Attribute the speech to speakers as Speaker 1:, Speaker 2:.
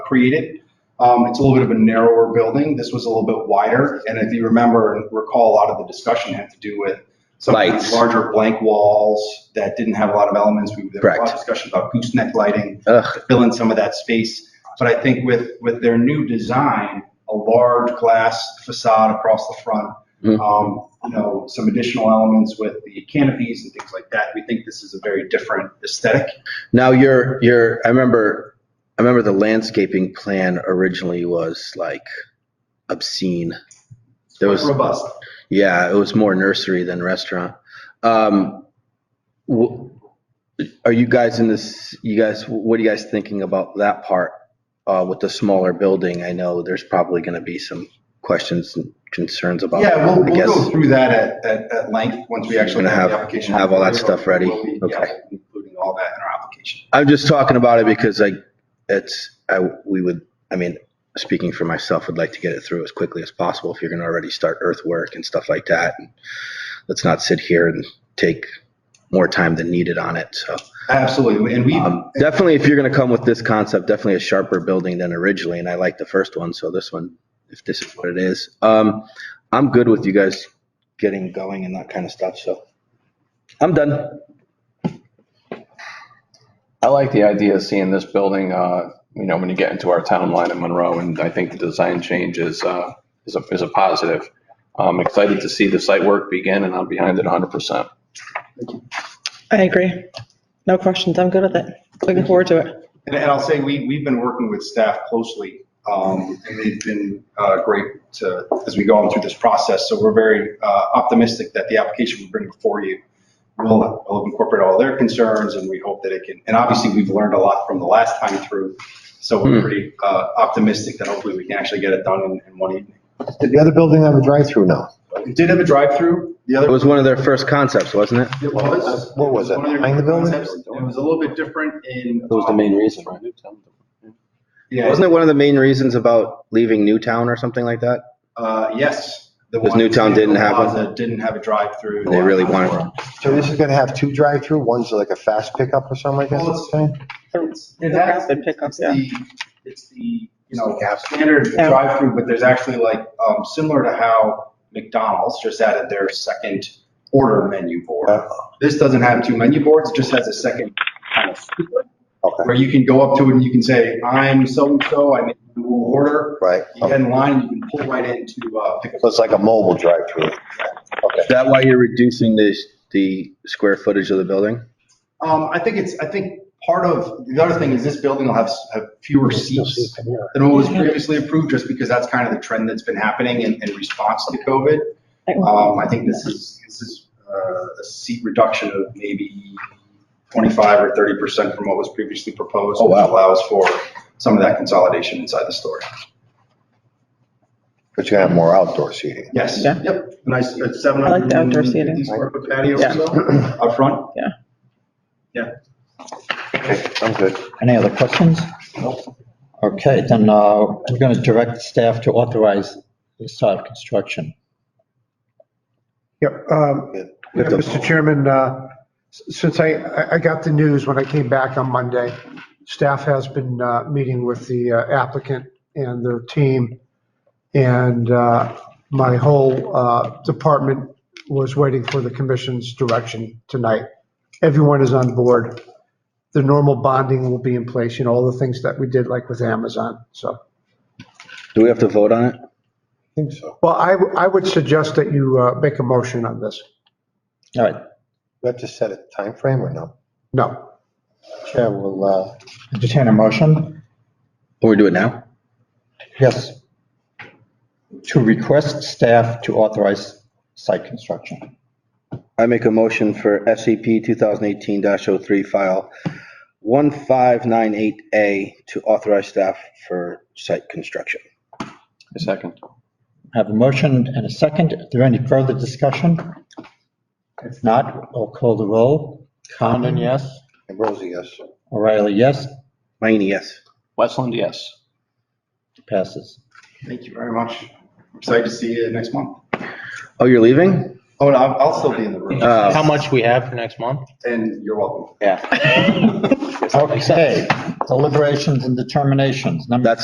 Speaker 1: created. Um, It's a little bit of a narrower building. This was a little bit wider. And if you remember and recall, a lot of the discussion had to do with some kind of
Speaker 2: Lights.
Speaker 1: larger blank walls that didn't have a lot of elements. We There was a lot of
Speaker 2: Correct.
Speaker 1: discussion about gooseneck lighting
Speaker 2: Ugh,
Speaker 1: to fill in some of that space. But I think with, with their new design, a large glass facade across the front,
Speaker 2: Mhm.
Speaker 1: um, you know, some additional elements with the canopies and things like that, we think this is a very different aesthetic.
Speaker 2: now your, your, I remember, I remember the landscaping plan originally was like obscene. There was,
Speaker 1: Robust.
Speaker 2: yeah, it was more nursery than restaurant. Um, wh- Are you guys in this, you guys, what are you guys thinking about that part uh, with the smaller building? I know there's probably going to be some questions and concerns about.
Speaker 1: Yeah, we'll,
Speaker 2: I
Speaker 1: we'll
Speaker 2: guess.
Speaker 1: go through that at, at, at length, once we actually
Speaker 2: Gonna
Speaker 1: have the
Speaker 2: have-
Speaker 1: application.
Speaker 2: have all
Speaker 1: We'll
Speaker 2: that
Speaker 1: be-
Speaker 2: stuff ready?
Speaker 1: we'll be- yeah,
Speaker 2: Okay.
Speaker 1: Including all that in our application.
Speaker 2: I'm just talking about it because I, it's, I, we would, I mean, speaking for myself, would like to get it through as quickly as possible if you're gonna already start earthwork and stuff like that. And Let's not sit here and take more time than needed on it, so.
Speaker 1: Absolutely, and we,
Speaker 2: Um, Definitely, if you're gonna come with this concept, definitely a sharper building than originally, and I like the first one, so this one, if this is what it is. Um, I'm good with you guys getting going and that kind of stuff, so. I'm done.
Speaker 3: I like the idea of seeing this building, uh, you know, when you get into our town line in Monroe, and I think the design change is, uh, is a, is a positive. I'm excited to see the site work begin, and I'm behind it 100%.
Speaker 4: I agree. No questions. I'm good with it. Looking forward to it.
Speaker 1: And, and I'll say, we, we've been working with staff closely, um, and they've been, uh, great to, as we go on through this process. So we're very, uh, optimistic that the application we bring before you will, will incorporate all their concerns, and we hope that it can, and obviously, we've learned a lot from the last time through. So we're
Speaker 2: Hmm.
Speaker 1: pretty, uh, optimistic that hopefully we can actually get it done in, in one evening.
Speaker 5: Did the other building have a drive-through now?
Speaker 1: It did have a drive-through, the
Speaker 2: It
Speaker 1: other.
Speaker 2: was one of their first concepts, wasn't it?
Speaker 1: It was.
Speaker 5: What was it,
Speaker 1: one of their
Speaker 5: behind the building?
Speaker 1: concepts. It was a little bit different in. uh,
Speaker 3: That was the main reason, right?
Speaker 1: Yeah.
Speaker 2: Wasn't it one of the main reasons about leaving Newtown or something like that?
Speaker 1: Uh, yes. the
Speaker 2: Because
Speaker 1: one-
Speaker 2: Newtown didn't have one?
Speaker 1: Plaza Didn't have a drive-through.
Speaker 2: They really wanted,
Speaker 5: So this is gonna have two drive-through, one's like a fast pickup or something like that,
Speaker 1: Well,
Speaker 5: it's saying?
Speaker 1: It
Speaker 4: The
Speaker 1: has,
Speaker 4: rapid
Speaker 1: it's
Speaker 4: pickups, yeah.
Speaker 1: the, it's the, you know, standard
Speaker 4: Yeah.
Speaker 1: drive-through, but there's actually like, um, similar to how McDonald's just added their second order menu board.
Speaker 5: Uh,
Speaker 1: This doesn't have two menu boards, it just has a second kind of,
Speaker 5: Okay,
Speaker 1: where you can go up to it and you can say, I'm so-and-so, I need a new order.
Speaker 5: right.
Speaker 1: You get in line, and you can pull right into, uh, pick
Speaker 5: So it's like a mobile drive-through. Okay.
Speaker 2: is that why you're reducing the, the square footage of the building?
Speaker 1: Um, I think it's, I think part of, the other thing is this building will have, s- have fewer seats than what was previously approved, just because that's kind of the trend that's been happening in, in response to COVID. Um, I think this is, this is, uh, a seat reduction of maybe twenty-five or thirty percent from what was previously proposed.
Speaker 2: Oh, wow.
Speaker 1: which Allows for some of that consolidation inside the store.
Speaker 5: But you're gonna have more outdoor seating.
Speaker 1: Yes,
Speaker 4: Yeah.
Speaker 1: yep, nice, seven
Speaker 4: I like
Speaker 1: hundred
Speaker 4: the outdoor
Speaker 1: and
Speaker 4: seating.
Speaker 1: fifty square foot patio or
Speaker 4: Yeah.
Speaker 1: so, up front.
Speaker 5: Okay, I'm good.
Speaker 6: Any other questions? Okay, then uh, we're going to direct staff to authorize the start of construction.
Speaker 7: Yep. um,
Speaker 5: Yeah.
Speaker 7: yeah, Mr. Chairman, uh, s- since I, I- I got the news when I came back on Monday, staff has been uh, meeting with the uh, applicant and their team. And uh, my whole uh, department was waiting for the commission's direction tonight. Everyone is on board. The normal bonding will be in place, you know, all the things that we did like with Amazon, so.
Speaker 2: Do we have to vote on it?
Speaker 5: I think so.
Speaker 7: Well, I, w- I would suggest that you uh, make a motion on this.
Speaker 6: All right,
Speaker 5: We have to set a time frame or no?
Speaker 7: No.
Speaker 5: Chair will, uh,
Speaker 6: entertain a motion.
Speaker 2: Or we do it now?
Speaker 6: Yes. To request staff to authorize site construction.
Speaker 2: I make a motion for E SCP 2018-03 file 1598A to authorize staff for site construction.
Speaker 3: A second.
Speaker 6: I Have a motion and a second. Is there any further discussion? If not, I'll call the roll. Condon, yes.
Speaker 5: Ambrosi, yes.
Speaker 6: O'Reilly, yes.
Speaker 2: Mayne, yes.
Speaker 3: Westland, yes.
Speaker 6: Passes.
Speaker 1: Thank you very much. I'm Excited to see you next month.
Speaker 2: Oh, you're leaving?
Speaker 1: Oh, and I'll, I'll still be in the room.
Speaker 2: Uh,
Speaker 8: how much we have for next month?
Speaker 1: And you're welcome.
Speaker 8: Yeah.
Speaker 6: Okay, deliberations and determinations. Number
Speaker 2: That's